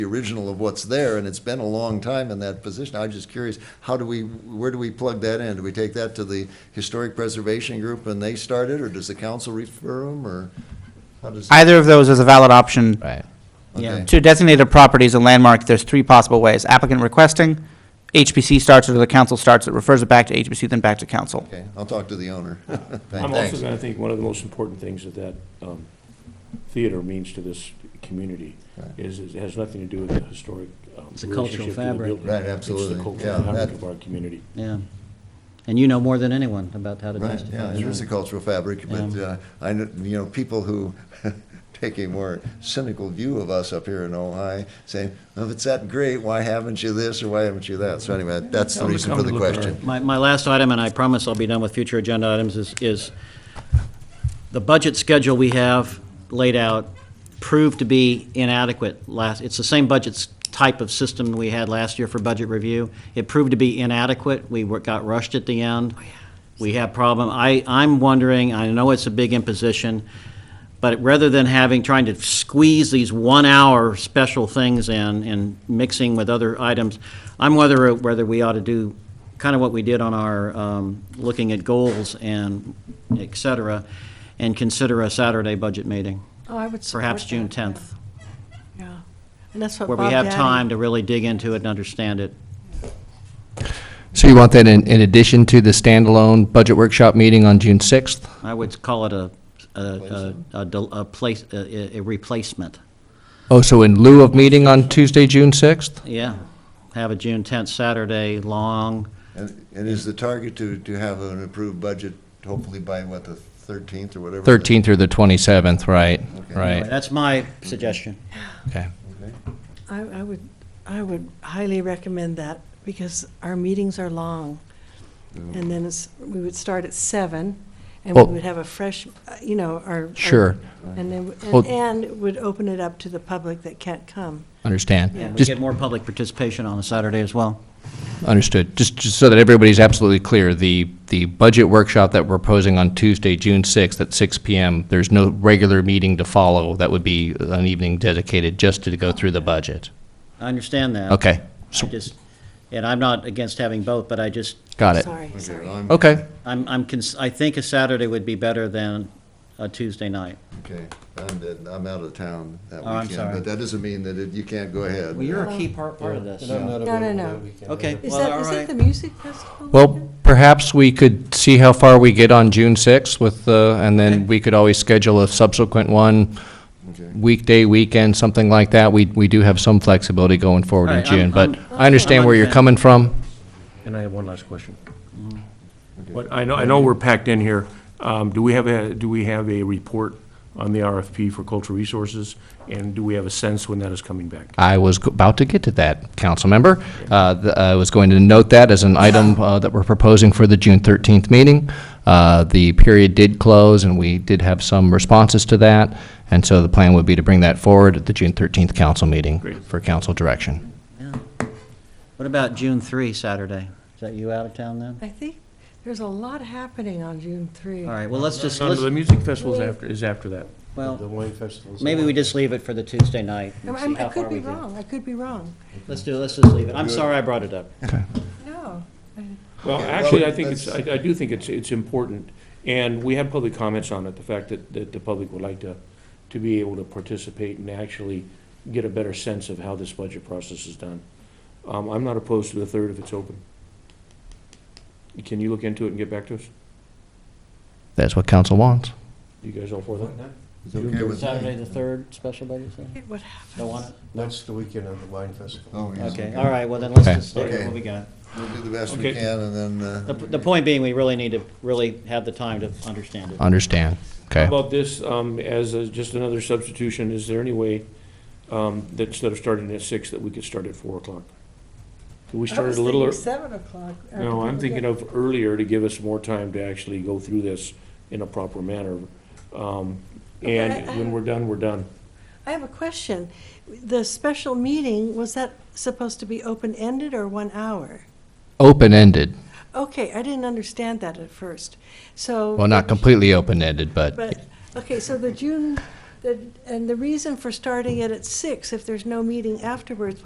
the original of what's there, and it's been a long time in that position. I'm just curious, how do we, where do we plug that in? Do we take that to the Historic Preservation Group and they start it, or does the council refer them, or how does? Either of those is a valid option. Right. Okay. To designate a property as a landmark, there's three possible ways. Applicant requesting, HPC starts it, or the council starts it, refers it back to HPC, then back to council. Okay, I'll talk to the owner. I'm Thanks. also going to think one of the most important things that that um, theater means to this community is, is- it has nothing to do with the historic. um, It's a cultural relationship to the fabric. building. Right, absolutely. It's the Yeah, cultural fabric that- of our community. Yeah. And you know more than anyone about how to Right, yeah, justify it is a it. cultural fabric, but uh, I, kn- you know, people who take a more cynical view of us up here in Ojai, saying, "Well, if it's that great, why haven't you this, or why haven't you that? So anyway, that's the Come to- reason come for to the look at question. My, my last item, and I promise I'll be done with future agenda items, is, is the budget schedule we have laid out proved to be inadequate last, it's the same budget s- type of system we had last year for budget review. It proved to be inadequate. We were- got rushed at the end. We had problem. I, I'm wondering, I know it's a big imposition, but rather than having, trying to squeeze these one-hour special things in and mixing with other items, I'm whether, whether we ought to do kind of what we did on our, um, looking at goals and et cetera, and consider a Saturday budget meeting, Oh, I would support perhaps June that, yeah. 10th, Yeah, and that's what where Bob we have Daddy- time to really dig into it and understand it. So you want that in, in addition to the standalone budget workshop meeting on June 6th? I would call it a, a, a, a del- a place, a, a replacement. Oh, so in lieu of meeting on Tuesday, June 6th? Yeah, have a June 10th Saturday, long, And and is the target to, to have an approved budget hopefully by, what, the 13th or whatever? the- 13th through the 27th, right, Okay. right, that's my suggestion. okay. I, I would, I would highly recommend that, because our meetings are long. And then it's, we would start at seven, Mm. and we Well- would have a fresh, uh, you know, our. our- Sure. And then, Well- and- and it would open it up to the public that can't come. Yeah. Understand. We Just get more public participation on a Saturday as well. Understood. Just, just so that everybody's absolutely clear, the, the budget workshop that we're posing on Tuesday, June 6th at 6 PM, there's no regular meeting to follow. That would be an evening dedicated just to go through the budget. I understand that. Okay, I just, and I'm not against having both, but I just, got it. Sorry, Okay, sorry. I'm- Okay, I'm, I'm, cons- I think a Saturday would be better than a Tuesday night. Okay, I'm, dead. I'm out of town that Oh, I'm weekend, sorry. but that doesn't mean that it- you can't go ahead. Well, you're a key part, part of this. No, no, no. Okay, Is well, that, all is it right. the music festival? well, perhaps we could see how far we get on June 6th with, uh, and Okay. then we could always schedule a subsequent one, Okay. weekday, weekend, something like that. We, we do have some flexibility going forward All in right, I'm- June, but I'm- I understand I'm where you're okay. coming from. And I have one last question. Mm-hmm. But I know, I know we're packed in here. Um, Do we have a, do we have a report on the RFP for cultural resources? And do we have a sense when that is coming back? I was g- about to get to that, council member. Uh, th- I was going to note that as an item uh, that we're proposing for the June 13th meeting. Uh, The period did close, and we did have some responses to that, and so the plan would be to bring that forward at the June 13th council meeting Great. for council direction. What about June 3, Saturday? Is that you out of town then? I think there's a lot happening on June three. All right, well, let's just, No, no, let's, The music festival is after, is after that. well, maybe we just leave it for the Tuesday night I'm- and see I'm- I how could far be we get. wrong, I could be wrong. Let's do, let's just leave it. I'm sorry I brought it up. No. Well, Okay, actually, well, I think it's, I I do think it's, it's important, and we had public comments on it, the fact that, that the public would like to, to be able to participate and actually get a better sense of how this budget process is done. Um, I'm not opposed to the third if it's open. Can you look into it and get back to us? That's what council wants. You guys all for that? It's okay with me. Saturday the 3rd, special budget, sir? It would happen. Don't want it? That's the weekend of the wine festival. Oh, yes, Okay, all right, well, then let's Okay. just stick with Okay. what we got. We'll do the best we Okay. can, and then, uh, The, the point being, we really need to really have the time to understand it. Understand. Okay. How about this, um, as a- just another substitution, is there any way um, that instead of starting at six, that we could start at four o'clock? Could we start it a little? ear- Seven o'clock. No, I'm thinking of earlier to give us more time to actually go through this in a proper manner. Um, And Okay. when we're done, we're done. I have a question. The special meeting, was that supposed to be open-ended or one hour? Open-ended. Okay, I didn't understand that at first. So. Well, not completely open-ended, but But, okay, so the June The- And the reason for starting it at six, if there's no meeting afterwards,